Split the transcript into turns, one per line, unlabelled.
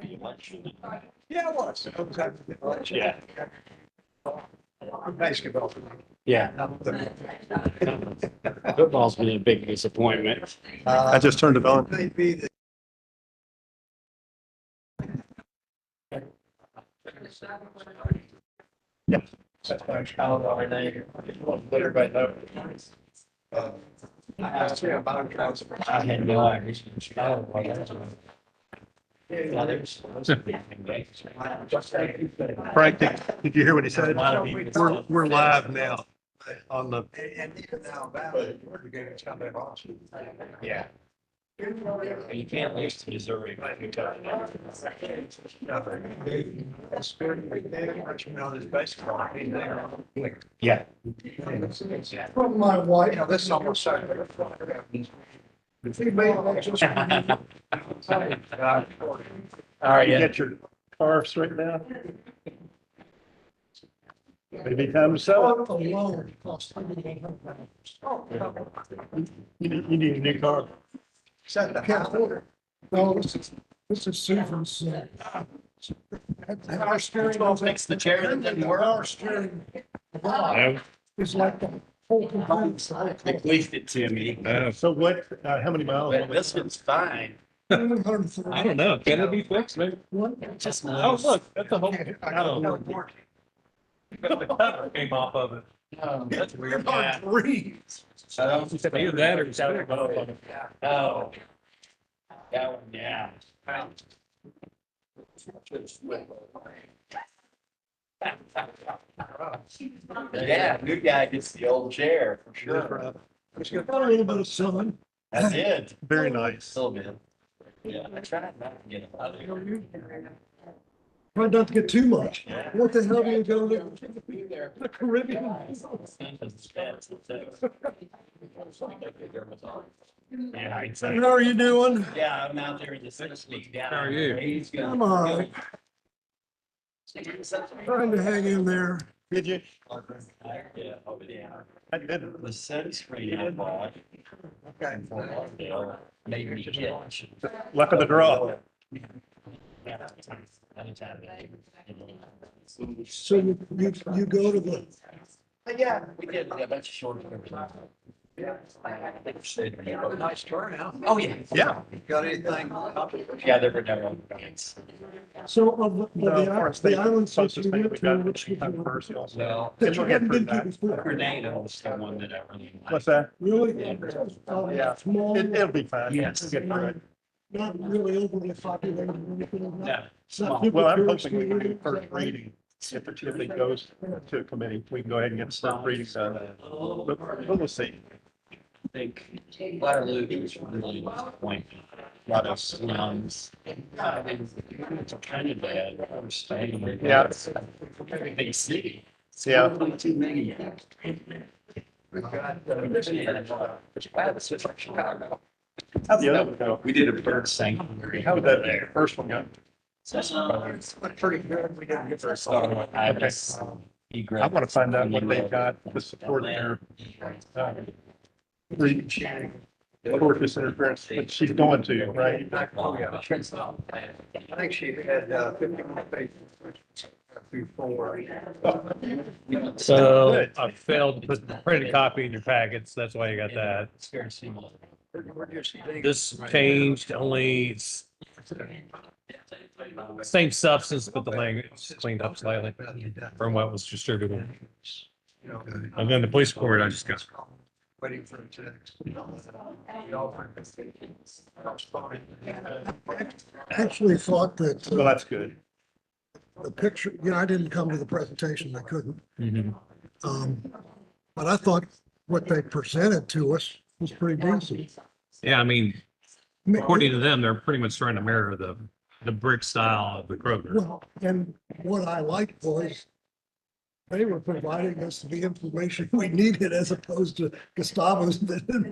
the election.
Yeah, it was. It was after the election.
Yeah.
Basketball. for me.
Yeah,
Not the-
football's been a big disappointment.
Uh,
I just turned it on.
They'd be the.
Yeah.
That's my child already. Let everybody know. Uh, I asked him about it. I was-
I had no idea. Oh, well, that's- Yeah, there's-
Frank, did, did you hear what he said?
A lot of people-
We're, we're live now on the,
And, and even now, Valley, we're going to come in Austin.
Yeah, you can't lose to Missouri, but you don't.
Nothing. The spirit of big data, what you know, is baseball. I mean, they're like,
Yeah.
From my wife, you know, this is almost. like- If you made that just-
All right,
you
yeah.
got your cars right now? Maybe time to sell it.
Alone cost $1,800.
You need, you need a new car.
Set the house.
No, this is, this is Susan's. uh,
Our steering.
fix the chair that didn't work.
Our steering.
It's like the whole complaint side.
leaked it to me.
So what, uh, how many miles?
This one's fine.
I
don't know.
Can it
be fixed, maybe?
Just.
Oh, look, that's a whole.
The
cover came off of it.
Oh, That's weird.
breeze.
Either that or it's out of the.
Oh. That one, yeah. Yeah, new guy gets the old chair for sure.
Got a little bit of sun.
I did,
Very nice.
still bit. Yeah, I tried not to get him out of here.
Try not to get too much.
Yeah.
What the hell do you go to the Caribbean?
Yeah, exactly.
How are you doing?
Yeah, I'm out there in the sixth league down.
How are you?
He's gonna-
I'm all right. Trying to hang in there.
Did you?
Yeah, over there.
I did.
The sunscreen I bought
Okay.
from Lawndale made me itch.
Luck of the draw.
So you, you, you go to the,
Yeah.
We did a bunch of short.
Nice turnout.
Oh, yeah.
Yeah.
Got anything?
Yeah, there were no events.
so of the- of the,
The forest
i- the
thing,
islands that
closest
you
thing
went
we
to,
got,
which
which
you
we
that
first also.
Well,
you hadn't been to before.
Grenada was the one that I really liked.
What's that?
Really? Uh,
Yeah.
Small.
It, it'll be fine.
Yes.
We'll Get through it.
Not really overly populated or anything like that.
No,
It's not super
Well, I'm
tourist
hoping we can do
related.
first reading. If it, if it goes to a committee, we can go ahead and get first reading done. But, but we'll see.
think Waterloo is really point. A lot of slums. I mean, It's kind of bad. I'm staying. there.
Yeah.
It's a very Big city. It's
Yeah.
probably Too many.
We've got.
How'd the other one go?
We did a bird sanctuary.
How would that, first one go?
Pretty good. We didn't get first.
I was.
I want to find out what they've got to support their, uh, re- religious interference, but she's going to, right?
Oh, yeah. I think she had uh, fifty more pages before.
So I failed to put the printed copy in your packets. That's why you got that.
We're just digging.
This changed only s- same substance, but the language is cleaned up slightly from what was distributed.
You know,
And then the police court, I just got.
Waiting for it to. You know, for- I was fine.
Actually thought that
Well,
uh,
that's good.
the picture, you know, I didn't come to the presentation, I couldn't. Um, but I thought what they presented to us was pretty decent.
Yeah, I mean,
I mean,
according to them, they're pretty much trying to mirror the, the brick style of the Kroger.
Well, and what I liked was they were providing us the information we needed as opposed to Gustavo's that didn't